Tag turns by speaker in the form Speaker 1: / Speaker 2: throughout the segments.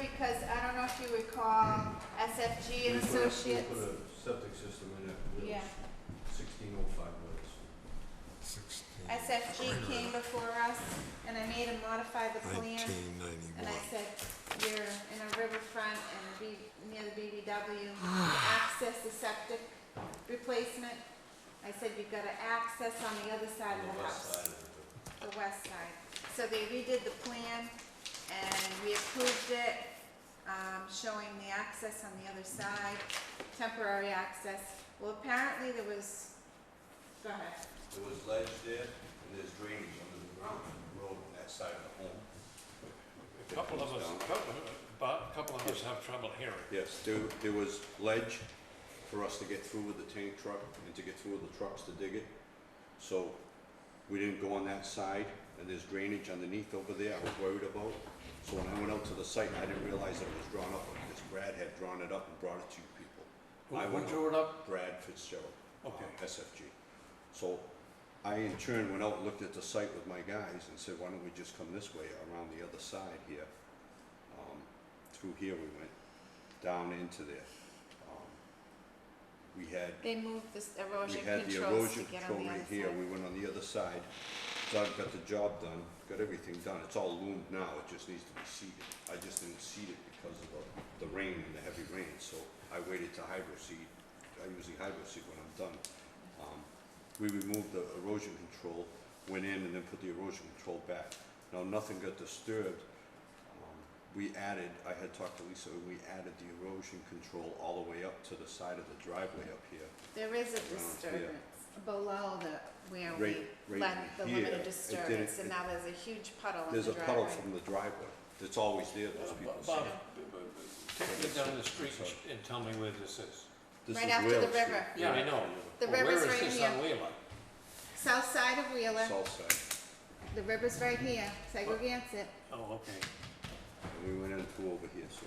Speaker 1: because I don't know if you recall SFG and
Speaker 2: We put a-
Speaker 1: Associates.
Speaker 2: We put a septic system in at
Speaker 1: Yeah.
Speaker 2: Willis, sixteen oh five Willis.
Speaker 3: Sixteen.
Speaker 1: SFG came before us and I made him modify the plan.
Speaker 3: Nineteen
Speaker 1: And I
Speaker 3: ninety-one.
Speaker 1: said, you're in a riverfront and be, near the BBW, access the septic replacement. I said, you've gotta access on the other side
Speaker 2: On
Speaker 1: of the
Speaker 2: west
Speaker 1: house,
Speaker 2: side of the-
Speaker 1: the west side. So they redid the plan and we approved it, um, showing the access on the other side, temporary access. Well, apparently there was, go ahead.
Speaker 2: There was ledge there, and there's drainage under the ground, in the road on that side of the home.
Speaker 4: Couple of us, couple, but a couple of us have trouble hearing.
Speaker 2: Yes, there, there was ledge for us to get through with the tank truck and to get through with the trucks to dig it. So we didn't go on that side and there's drainage underneath over there I was worried about. So when I went out to the site, I didn't realize that it was drawn up because Brad had drawn it up and brought it to you people.
Speaker 4: Who-
Speaker 2: I
Speaker 4: who
Speaker 2: went
Speaker 4: drew it up?
Speaker 2: Brad Fitzgerald. uh,
Speaker 4: Okay.
Speaker 2: SFG. So I in turn went out and looked at the site with my guys and said, why don't we just come this way around the other side here? Um, through here we went down into there. Um, We had,
Speaker 1: They moved this
Speaker 2: we
Speaker 1: erosion
Speaker 2: had the
Speaker 1: controls to
Speaker 2: erosion
Speaker 1: get
Speaker 2: control
Speaker 1: on the other
Speaker 2: right
Speaker 1: side.
Speaker 2: here, we went on the other side. Doug got the job done, got everything done, it's all loomed now, it just needs to be seeded. I just didn't seed it because of the, the rain and the heavy rain, so I waited to hydro seed. I usually hydro seed when I'm done. Um, we removed the erosion control, went in and then put the erosion control back. Now, nothing got disturbed. Um, We added, I had talked to Lisa, and we added the erosion control all the way up to the side of the driveway up here.
Speaker 1: There is a
Speaker 2: here.
Speaker 1: disturbance below the, where
Speaker 2: Uh, Right-
Speaker 1: we
Speaker 2: right
Speaker 1: let the
Speaker 2: here, it didn't-
Speaker 1: limited disturbance, and
Speaker 2: it-
Speaker 1: now there's a huge puddle in
Speaker 2: There's
Speaker 1: the
Speaker 2: a puddle
Speaker 1: driveway.
Speaker 2: from the driveway that's always there, those people
Speaker 4: Bob,
Speaker 2: say.
Speaker 4: Bob, take me down the street and sh- and tell me where this is.
Speaker 2: This
Speaker 1: Right
Speaker 2: is
Speaker 1: after the
Speaker 2: Whale Street.
Speaker 1: river.
Speaker 4: Yeah, I know.
Speaker 1: The
Speaker 4: But where
Speaker 1: river's
Speaker 4: is
Speaker 1: right
Speaker 4: this
Speaker 1: here.
Speaker 4: on Wheeler?
Speaker 1: South side of Wheeler,
Speaker 2: South
Speaker 1: the river's right here, Segregated.
Speaker 4: Oh, okay.
Speaker 2: side, and we went in through over here, so.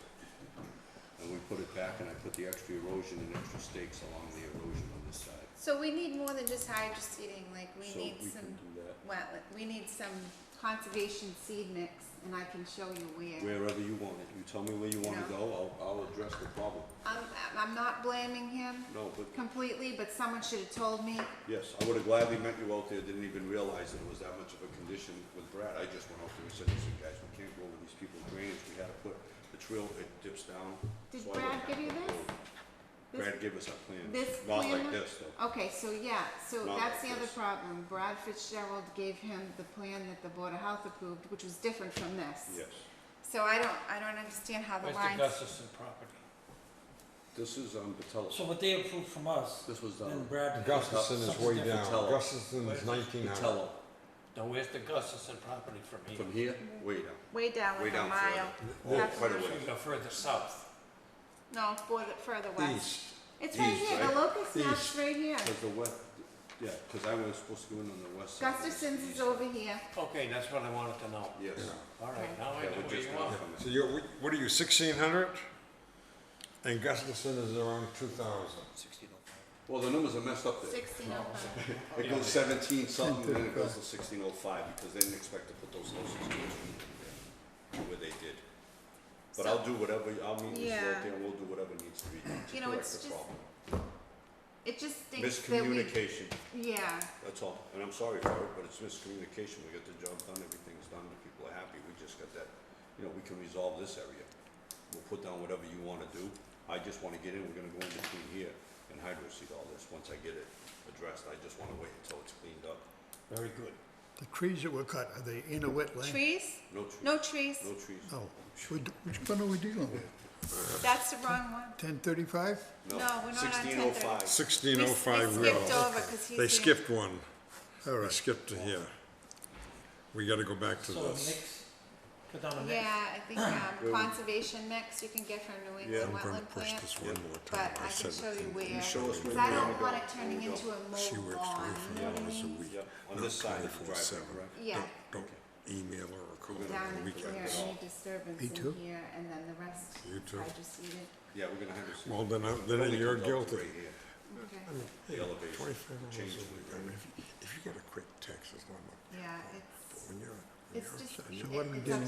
Speaker 2: And we put it back and I put the extra erosion and extra stakes along the erosion on this side.
Speaker 1: So we need more than just hydro seeding, like, we need
Speaker 2: So we
Speaker 1: some,
Speaker 2: can do that.
Speaker 1: well, we need some conservation seed mix, and I can show you where.
Speaker 2: Wherever you want it, you tell me where you wanna
Speaker 1: No.
Speaker 2: go, I'll, I'll address the problem.
Speaker 1: I'm, I'm not blaming him
Speaker 2: No, but
Speaker 1: completely, but someone should have told me,
Speaker 2: Yes, I would have gladly met you out there, didn't even realize that it was that much of a condition with Brad, I just went out there and said, listen, guys, we can't go over these people's drainage, we had to put the trail, it dips down.
Speaker 1: Did
Speaker 2: so I went
Speaker 1: Brad give you
Speaker 2: back up the
Speaker 1: this?
Speaker 2: road.
Speaker 1: This-
Speaker 2: Brad gave us a plan,
Speaker 1: this
Speaker 2: not
Speaker 1: plan
Speaker 2: like
Speaker 1: here?
Speaker 2: this though,
Speaker 1: Okay, so yeah, so
Speaker 2: Not
Speaker 1: that's the
Speaker 2: like
Speaker 1: other
Speaker 2: this.
Speaker 1: problem. Brad Fitzgerald gave him the plan that the Board of Health approved, which was different from this.
Speaker 2: yes.
Speaker 1: So I don't, I don't understand how the
Speaker 4: Where's
Speaker 1: lines.
Speaker 4: the Gustafson property?
Speaker 2: This is, um, Batella,
Speaker 5: So what they approved from us,
Speaker 2: this was uh,
Speaker 5: then
Speaker 2: done,
Speaker 5: Brad.
Speaker 3: Gustafson is way
Speaker 5: Something
Speaker 3: down.
Speaker 5: different.
Speaker 2: Tell 'em.
Speaker 3: Gustafson is nineteen hundred.
Speaker 2: Batella,
Speaker 4: No, where's the Gustafson property from here?
Speaker 2: from here, way down,
Speaker 1: Way down
Speaker 2: way
Speaker 1: like a
Speaker 2: down
Speaker 1: mile.
Speaker 2: further, oh,
Speaker 1: That's
Speaker 2: quite a
Speaker 1: what
Speaker 2: way.
Speaker 1: I'm
Speaker 4: You go further south.
Speaker 1: No, further, further west.
Speaker 3: East.
Speaker 1: It's right
Speaker 2: East,
Speaker 1: here, the
Speaker 2: right?
Speaker 1: locust map's
Speaker 3: East.
Speaker 1: right here.
Speaker 2: Cause the west, yeah, cause I was supposed to go in on the west side.
Speaker 1: Gustafson's is over here.
Speaker 4: Okay, that's what I wanted to know.
Speaker 2: Yes,
Speaker 4: All right, now I
Speaker 2: yeah,
Speaker 4: know
Speaker 2: we
Speaker 4: where
Speaker 2: just
Speaker 4: you
Speaker 2: went
Speaker 4: are.
Speaker 2: from
Speaker 3: So
Speaker 2: it,
Speaker 3: you're, wh- what are you, sixteen hundred? And Gustafson is around two thousand.
Speaker 2: well, the numbers are messed up there.
Speaker 1: Sixteen oh five.
Speaker 2: It goes seventeen something, then it goes to sixteen oh five, because they didn't expect to put those houses in there, where they did. But I'll do whatever, I'll meet with you
Speaker 1: Yeah.
Speaker 2: out there, we'll do whatever needs to be done
Speaker 1: You
Speaker 2: to
Speaker 1: know,
Speaker 2: correct the
Speaker 1: it's just
Speaker 2: problem.
Speaker 1: It just stinks that we,
Speaker 2: Miscommunication,
Speaker 1: yeah,
Speaker 2: that's all, and I'm sorry for it, but it's miscommunication, we got the job done, everything's done, the people are happy, we just got that, you know, we can resolve this area. We'll put down whatever you wanna do, I just wanna get in, we're gonna go in between here and hydro seed all this, once I get it addressed, I just wanna wait until it's cleaned up,
Speaker 4: Very good.
Speaker 6: The trees that were cut, are they in a wetland?
Speaker 1: trees,
Speaker 2: no trees.
Speaker 1: no trees.
Speaker 2: No trees.
Speaker 6: No. What, which one are we dealing with?
Speaker 1: That's the wrong one.
Speaker 6: Ten thirty-five?
Speaker 1: No, we're not on
Speaker 2: Sixteen oh five.
Speaker 3: Sixteen oh five
Speaker 1: We
Speaker 3: Will.
Speaker 1: skipped over 'cause he's
Speaker 3: They
Speaker 1: in-
Speaker 3: skipped one.
Speaker 6: All
Speaker 3: They
Speaker 6: right.
Speaker 3: skipped to here. We gotta go back to
Speaker 5: So
Speaker 3: this.
Speaker 5: mix, cut down a mix.
Speaker 1: Yeah, I think, um, conservation mix you can get from New England
Speaker 3: I'm gonna
Speaker 1: wetland
Speaker 3: push
Speaker 1: plant.
Speaker 3: this one more time.
Speaker 1: But I can
Speaker 3: said
Speaker 1: show you
Speaker 3: in-
Speaker 1: where,
Speaker 2: show us
Speaker 1: cause
Speaker 2: where
Speaker 1: I
Speaker 2: you
Speaker 1: don't
Speaker 2: wanna
Speaker 1: want it
Speaker 2: go.
Speaker 1: turning
Speaker 2: There you
Speaker 1: into a
Speaker 3: She
Speaker 1: mold
Speaker 3: works
Speaker 1: lawn, you know what
Speaker 3: twenty-four
Speaker 1: I
Speaker 3: hours a
Speaker 1: mean?
Speaker 3: week.
Speaker 2: Yep, on
Speaker 3: not
Speaker 2: this side of the
Speaker 3: 24/7.
Speaker 2: driveway, correct?
Speaker 1: Yeah.
Speaker 3: Don't- Don't email her or call her
Speaker 1: Down
Speaker 3: on the
Speaker 1: in here,
Speaker 3: weekend.
Speaker 1: any disturbance
Speaker 6: Me
Speaker 1: in
Speaker 6: too.
Speaker 1: here, and then the rest,
Speaker 3: You too.
Speaker 1: I just eat it,
Speaker 2: Yeah, we're gonna have to see.
Speaker 3: Well, then, I- then
Speaker 2: Building
Speaker 3: you're
Speaker 2: comes out to right
Speaker 3: guilty.
Speaker 2: here.
Speaker 1: okay,
Speaker 2: The elevation,
Speaker 3: Twenty-five hours a
Speaker 2: change
Speaker 3: week.
Speaker 2: the
Speaker 3: I mean, if you- if you get a quick text, it's not much.
Speaker 1: yeah, it's,
Speaker 3: When you're, when
Speaker 1: it's
Speaker 3: you're
Speaker 1: just, it-
Speaker 3: upset, you're
Speaker 6: what are we
Speaker 1: it's
Speaker 6: doing